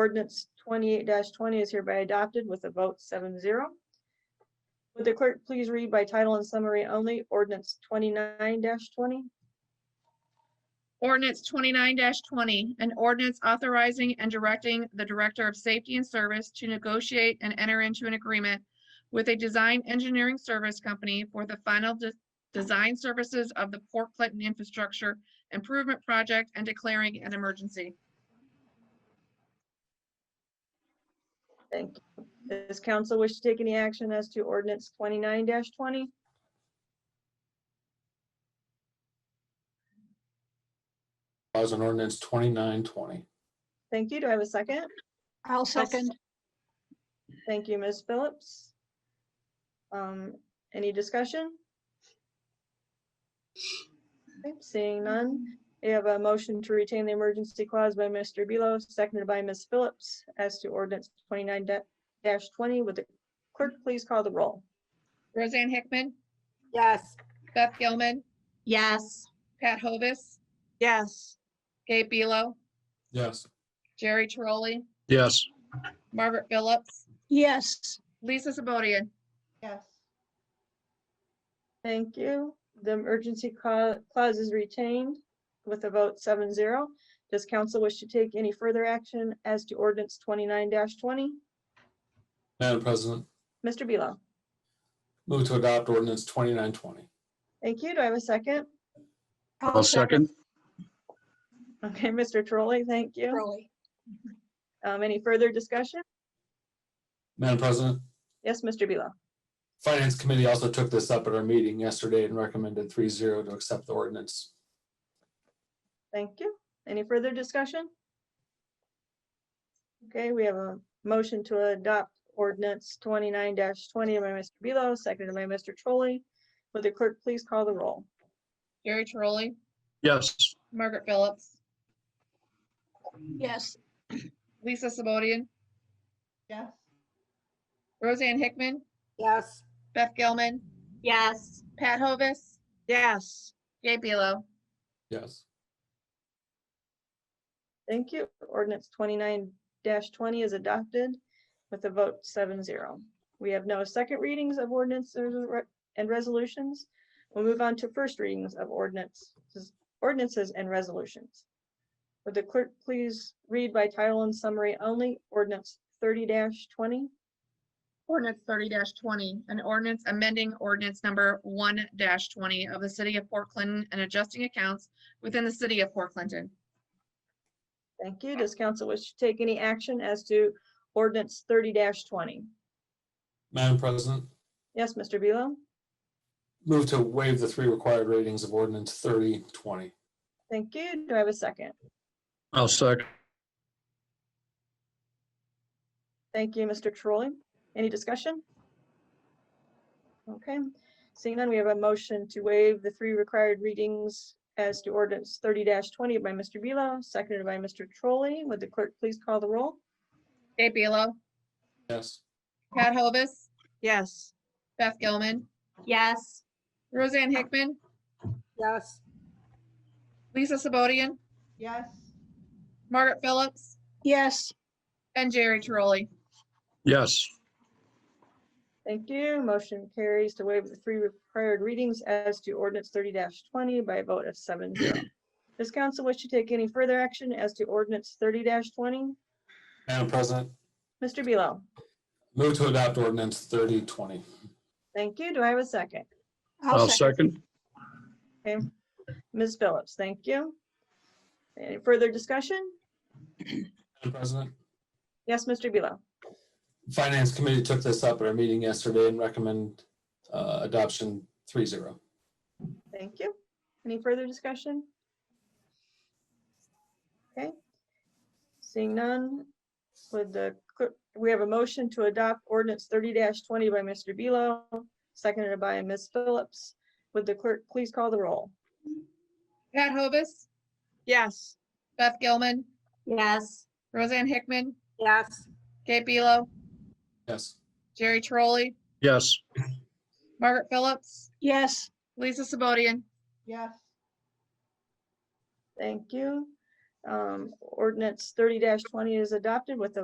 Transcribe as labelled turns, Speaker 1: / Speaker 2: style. Speaker 1: ordinance twenty-eight twenty is hereby adopted with a vote seven zero. Would the clerk please read by title and summary only, ordinance twenty-nine twenty?
Speaker 2: Ordinance twenty-nine twenty, an ordinance authorizing and directing the Director of Safety and Service to negotiate and enter into an agreement with a design engineering service company for the final de- design services of the Port Clinton Infrastructure Improvement Project and declaring an emergency.
Speaker 1: Thank you. Does council wish to take any action as to ordinance twenty-nine twenty?
Speaker 3: Laws and ordinance twenty-nine twenty.
Speaker 1: Thank you. Do I have a second?
Speaker 4: I'll second.
Speaker 1: Thank you, Ms. Phillips. Um, any discussion? Okay, Seeing none, we have a motion to retain the emergency clause by Mr. Bealow, seconded by Ms. Phillips as to ordinance twenty-nine twenty. Would the clerk please call the roll?
Speaker 2: Roseanne Hickman,
Speaker 4: Yes.
Speaker 2: Beth Gilman,
Speaker 4: Yes.
Speaker 2: Pat Hovis,
Speaker 4: Yes.
Speaker 2: Gabe Belo,
Speaker 3: Yes.
Speaker 2: Jerry Trolley,
Speaker 3: Yes.
Speaker 2: Margaret Phillips,
Speaker 4: Yes.
Speaker 2: Lisa Sabodian.
Speaker 4: Yes.
Speaker 1: Thank you. The emergency cla- clause is retained with a vote seven zero. Does council wish to take any further action as to ordinance twenty-nine twenty?
Speaker 3: Madam President,
Speaker 1: Mr. Bealow?
Speaker 3: move to adopt ordinance twenty-nine twenty.
Speaker 1: Thank you. Do I have a second?
Speaker 5: I'll second.
Speaker 1: Okay, Mr. Trolley, thank you.
Speaker 4: Really?
Speaker 1: Um, any further discussion?
Speaker 3: Madam President,
Speaker 1: Yes, Mr. Bealow.
Speaker 3: Finance Committee also took this up at our meeting yesterday and recommended 3-0 to accept the ordinance.
Speaker 1: Thank you. Any further discussion? Okay, we have a motion to adopt ordinance twenty-nine twenty by Mr. Bealow, seconded by Mr. Trolley. Would the clerk please call the roll?
Speaker 2: Jerry Trolley,
Speaker 5: Yes.
Speaker 2: Margaret Phillips,
Speaker 4: Yes.
Speaker 2: Lisa Sabodian,
Speaker 4: Yes.
Speaker 2: Roseanne Hickman,
Speaker 4: Yes.
Speaker 2: Beth Gilman,
Speaker 4: Yes.
Speaker 2: Pat Hovis,
Speaker 4: Yes.
Speaker 2: Gabe Belo.
Speaker 3: Yes.
Speaker 1: Thank you. Ordinance twenty-nine twenty is adopted with a vote seven zero. We have no second readings of ordinances and re- and resolutions. We'll move on to first readings of ordinances, ordinances and resolutions. Would the clerk please read by title and summary only, ordinance thirty twenty?
Speaker 2: Ordinance thirty twenty, an ordinance amending ordinance number one twenty of the city of Port Clinton and adjusting accounts within the city of Port Clinton.
Speaker 1: Thank you. Does council wish to take any action as to ordinance thirty twenty?
Speaker 3: Madam President,
Speaker 1: Yes, Mr. Bealow?
Speaker 3: move to waive the three required ratings of ordinance 30-20.
Speaker 1: Thank you. Do I have a second?
Speaker 5: I'll second.
Speaker 1: Thank you, Mr. Trolley. Any discussion? Okay, seeing none, we have a motion to waive the three required readings as to ordinance thirty twenty by Mr. Bealow, seconded by Mr. Trolley. Would the clerk please call the roll?
Speaker 2: Gabe Belo,
Speaker 3: Yes.
Speaker 2: Pat Hovis,
Speaker 4: Yes.
Speaker 2: Beth Gilman,
Speaker 4: Yes.
Speaker 2: Roseanne Hickman,
Speaker 4: Yes.
Speaker 2: Lisa Sabodian,
Speaker 4: Yes.
Speaker 2: Margaret Phillips,
Speaker 4: Yes.
Speaker 2: and Jerry Trolley.
Speaker 5: Yes.
Speaker 1: Thank you. Motion carries to waive the three required readings as to ordinance thirty twenty by a vote of seven zero. Does council wish to take any further action as to ordinance thirty twenty?
Speaker 3: Madam President,
Speaker 1: Mr. Bealow,
Speaker 3: move to adopt ordinance 30-20.
Speaker 1: thank you. Do I have a second?
Speaker 5: I'll second.
Speaker 1: Okay, Ms. Phillips, thank you. Any further discussion?
Speaker 3: Madam President,
Speaker 1: Yes, Mr. Bealow.
Speaker 3: Finance Committee took this up at our meeting yesterday and recommend uh, adoption 3-0.
Speaker 1: Thank you. Any further discussion? Okay. Seeing none, with the, clerk- we have a motion to adopt ordinance thirty twenty by Mr. Bealow, seconded by Ms. Phillips. Would the clerk please call the roll?
Speaker 2: Pat Hovis,
Speaker 4: Yes.
Speaker 2: Beth Gilman,
Speaker 4: Yes.
Speaker 2: Roseanne Hickman,
Speaker 4: Yes.
Speaker 2: Gabe Belo,
Speaker 3: Yes.
Speaker 2: Jerry Trolley,
Speaker 5: Yes.
Speaker 2: Margaret Phillips,
Speaker 4: Yes.
Speaker 2: Lisa Sabodian,
Speaker 4: Yes.
Speaker 1: Thank you. Um, ordinance thirty twenty is adopted with a